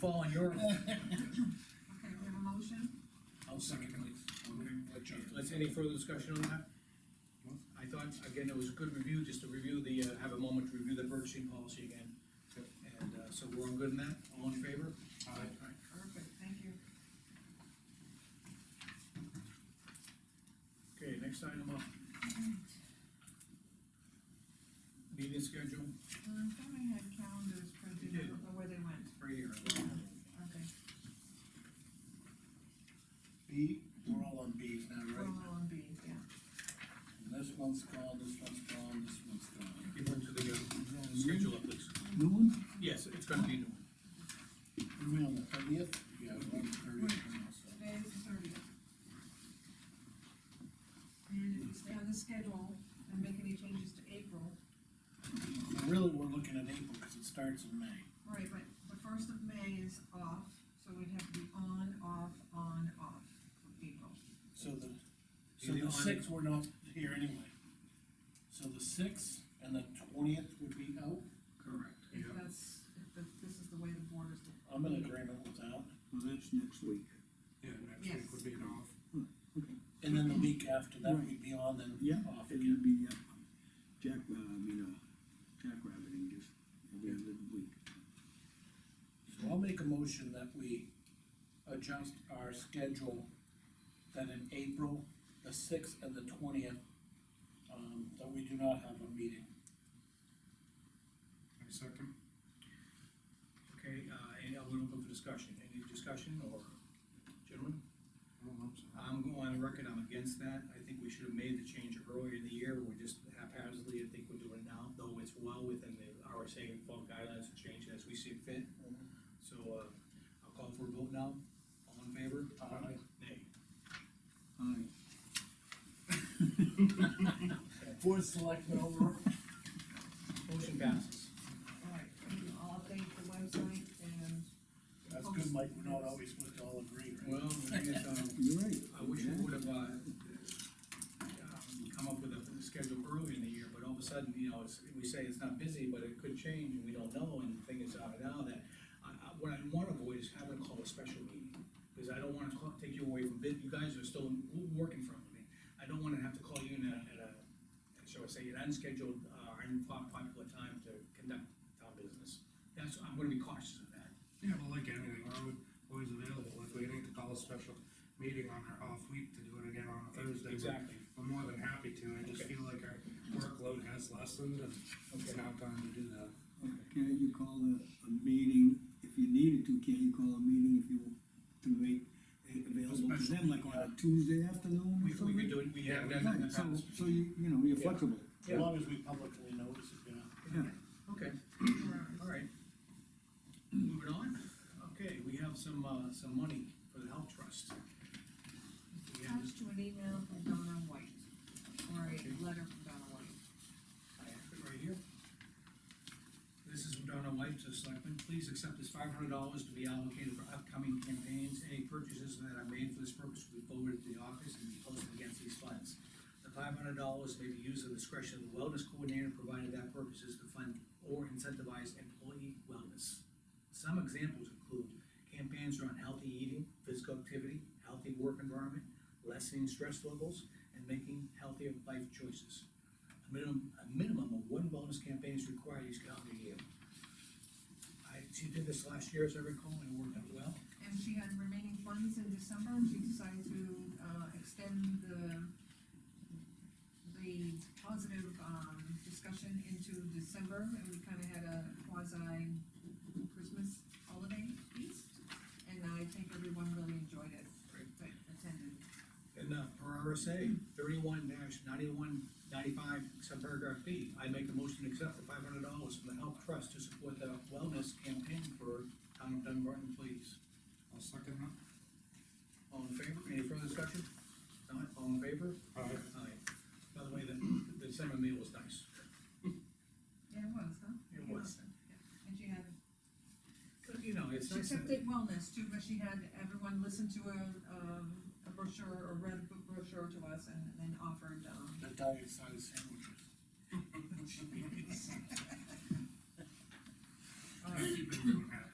fall on your, Okay, we have a motion, I'll second it. Let's, any further discussion on that? I thought, again, it was a good review, just to review the, uh, have a moment to review the purchasing policy again. And, uh, so we're all good in that, all in favor? perfect, thank you. Okay, next item up. Mm-hmm. Meeting schedule, Um, I thought I had calendars printed, I don't know where they went. right here. Okay, B, we're all on B's now, we're right? all on B, yeah. And This one's gone, this one's gone, this one's gone. Give one to the, uh, schedule up, please. New one? Yes, it's gonna be new. Are we on the thirtieth? Yeah, we're on the thirtieth. Today is the thirtieth. And if we stay on the schedule and make any changes to April, Really, we're looking at April, because it starts in May. right, but the first of May is off, so we'd have to be on, off, on, off for April. So the, so Either the on- sixth, we're not here anyway. So the sixth and the twentieth would be out. Correct. If that's, if the- this is the way the board is. I'm in agreement with that. Well, that's next week. Yeah, next Yes. week would be an off. And then the week after that, we'd be on and off It again. would be, uh, Jack, uh, I mean, uh, Jack Rabbiting just every other week. So I'll make a motion that we adjust our schedule, that in April, the sixth and the twentieth, um, that we do not have a meeting. I second. Okay, uh, and I'm gonna open for discussion, any discussion or, gentlemen? I don't know, so. I'm going on record, I'm against that, I think we should have made the change earlier in the year, we're just haphazardly, I think we're doing it now, though it's well within the RSA and fall guidelines to change as we see fit. So, uh, I'll call for a vote now, all in favor? Aye. Nay. Aye. Board of Selectmen over. Motion passes. All right, I'll update the website and. That's good, Mike, we're not always supposed to all agree, right? Well, I guess, um, You're right. I wish we would have, uh, um, come up with a schedule earlier in the year, but all of a sudden, you know, it's, we say it's not busy, but it could change, and we don't know, and the thing is, uh, now that, I, I, what I wanna avoid is having to call a special meeting, because I don't wanna call, take you away from, bid. you guys are still working from me. I don't wanna have to call you in a, at a, shall I say, an unscheduled, uh, unpopular time to conduct town business. That's, I'm gonna be cautious of that. Yeah, well, like anything, we're alwa- always available, if we need to call a special meeting on our off week to do it again on a Thursday. we're- Exactly. I'm more than happy to, I just Okay. feel like our workload has lessened and it's Okay. now time to do that. Can't you call a, a meeting, if you needed to, can't you call a meeting if you, to make it available to Special them, like on a Tuesday afternoon We, or something? we could do it, we have done it in the Right, so, past. so you, you know, you're Yeah. flexible. As long as we publicly notice it, yeah. Yeah. Okay. All Alright. right. Moving on, okay, we have some, uh, some money for the health trust. We have this- Attached to an email from Donna White, or a letter from Donna White. I have it right here. This is from Donna White to Selectmen, please accept this five hundred dollars to be allocated for upcoming campaigns, any purchases that are made for this purpose will be forwarded to the office and be posted against these funds. The five hundred dollars may be used at the discretion of the wellness coordinator, provided that purpose is to fund or incentivize employee wellness. Some examples include campaigns around healthy eating, physical activity, healthy work environment, lessening stress levels, and making healthier life choices. A minimum, a minimum of one wellness campaign is required each calendar year. I, she did this last year, as I recall, and it worked out well. And she had remaining funds in December, and she decided to, uh, extend the, the positive, um, discussion into December, and we kinda had a quasi Christmas holiday feast. And I think everyone really enjoyed it, that attended. And, uh, per RSA, thirty-one dash ninety-one ninety-five, subparagraph B, I make the motion to accept the five hundred dollars from the Health Trust to support the wellness campaign for town of Dunbar employees. I'll second that. All in favor, any further discussion? Not, all in favor? Aye. Aye. By the way, the, the December meal was nice. Yeah, it was, huh? It was. And she had But, you know, it's She nice. that- accepted wellness too, but she had everyone listen to a, um, a brochure, or read a book brochure to us and then offered, um, The diet size sandwiches. I keep it moving.